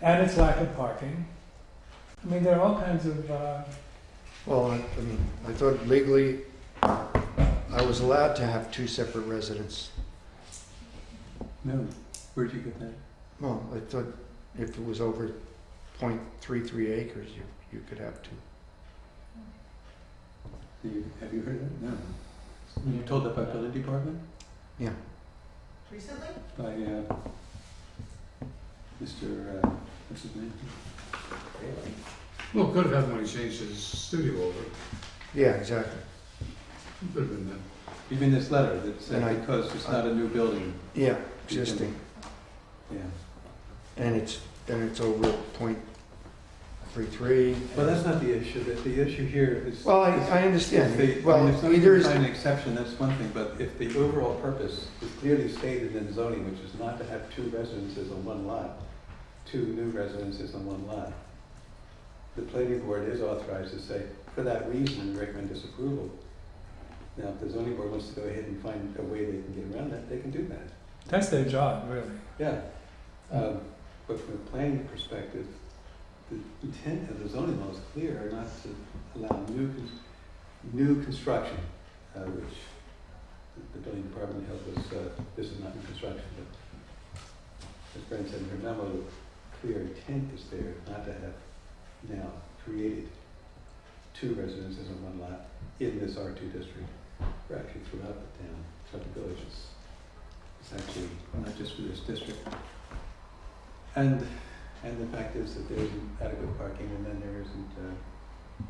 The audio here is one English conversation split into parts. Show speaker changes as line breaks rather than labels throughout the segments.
and its lack of parking. I mean, there are all kinds of, uh,
Well, I, I mean, I thought legally I was allowed to have two separate residents.
No, where'd you get that?
Well, I thought if it was over .33 acres, you, you could have two.
Do you, have you heard of that? No. You told that by building department?
Recently?
By, uh, Mr., uh, what's his name?
Well, could have happened when he changed his studio over.
Yeah, exactly.
Could have been that.
Even this letter that
And I-
said because it's not a new building,
Yeah, existing,
yeah.
and it's, and it's over .33.
Well, that's not the issue, that the issue here is.
Well, I,
is
I
If they,
understand,
I mean, if
well,
somebody
either
can
is,
find an exception, that's one thing, but if the overall purpose is clearly stated in zoning, which is not to have two residences on one lot, two new residences on one lot, the planning board is authorized to say, for that reason, recommend disapproval. Now, if the zoning board wants to go ahead and find a way they can get around that, they can do that,
that's their job, really.
yeah. Um, But from a planning perspective, the intent of the zoning law is clear, are not to allow new, con- new construction, uh, which the- the building department held was, uh, this is not new construction, but as Brent said in her memo, the clear intent is there not to have now created two residences on one lot in this R two district, or actually throughout the town, throughout the villages. It's actually not just for this district. And, and the fact is that there isn't adequate parking and then there isn't, uh,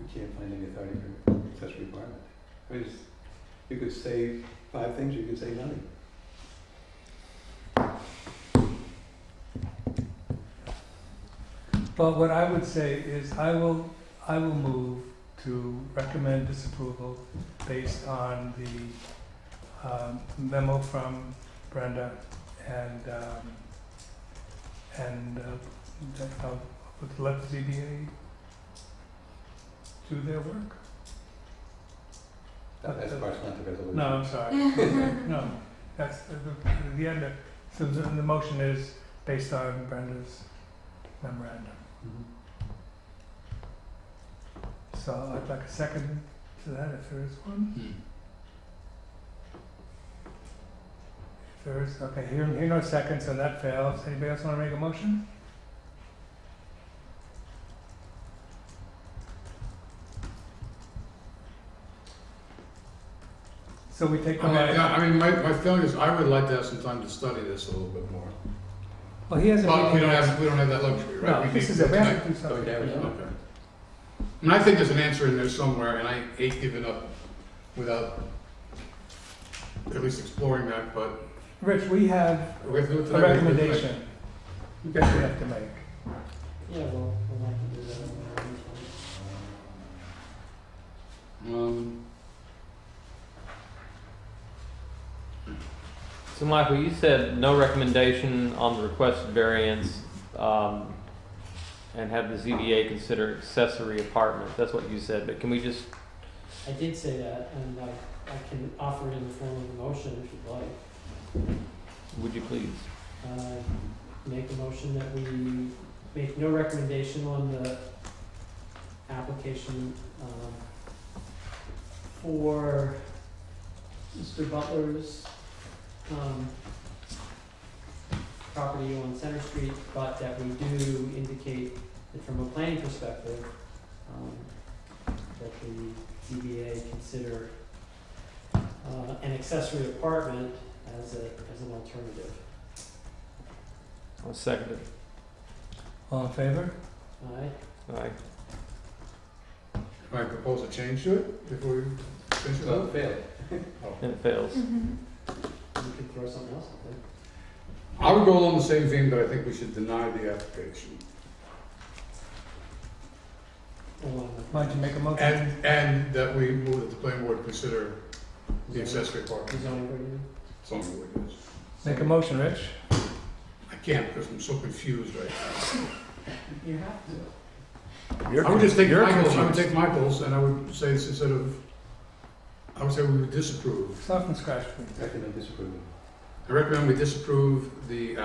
we can't find any authority for such requirement. I mean, it's- you could say five things, you could say nothing.
But what I would say is I will, I will move to recommend disapproval based on the um, memo from Brenda and, um, and uh, that I'll would let the ZBA do their work.
That- That's part not the resolution.
No, I'm sorry. No, that's the, the- the end of, so the, the motion is based on Brenda's memorandum.
Mhm.
So I'd like a second to that if there is one.
Hmm.
If there is, okay, here, here no seconds, so that fails. Anybody else wanna make a motion? So we take
I
no
mean,
action.
Uh, yeah, I mean, my, my feeling is I would like to have some time to study this a little bit more.
Well, he has a
But we
meeting
don't
next-
have, we don't have that luxury, right?
No,
We
this
need-
is it, we have to do
Go
something.
ahead, Arizona.
Okay. And I think there's an answer in there somewhere, and I hate giving up without at least exploring that, but
Rich, we have
we have to do it
a
today.
recommendation that we have to make.
Yeah, well, we'll have to do that in the meeting.
Um,
So, Michael, you said no recommendation on the requested variance, um, and have the ZBA consider accessory apartment. That's what you said, but can we just,
I did say that, and I, I can offer it in the form of a motion if you'd like.
would you please?
Uh, Make a motion that we make no recommendation on the application, um, for Mr. Butler's, um, property on Center Street, but that we do indicate that from a planning perspective, um, that the ZBA consider, uh, an accessory apartment as a, as an alternative.
I'll second it.
All in favor?
Aye.
Aye.
Can I propose a change to it before we finish it
Well,
up?
it failed. Oh.
And it fails.
You could throw something else in there.
I would go along the same theme, but I think we should deny the application.
Oh, I'm not-
Why don't you make a motion?
And, and that we move that the planning board consider the accessory apartment,
The zoning board, you
something like this.
Make a motion, Rich.
I can't because I'm so confused right
know? You have to.
now. I would just take Michael's, I would take Michael's and I would say this instead of, I would say we would disapprove.
Start from scratch, please.
Recommend disapproval.
I recommend we disapprove the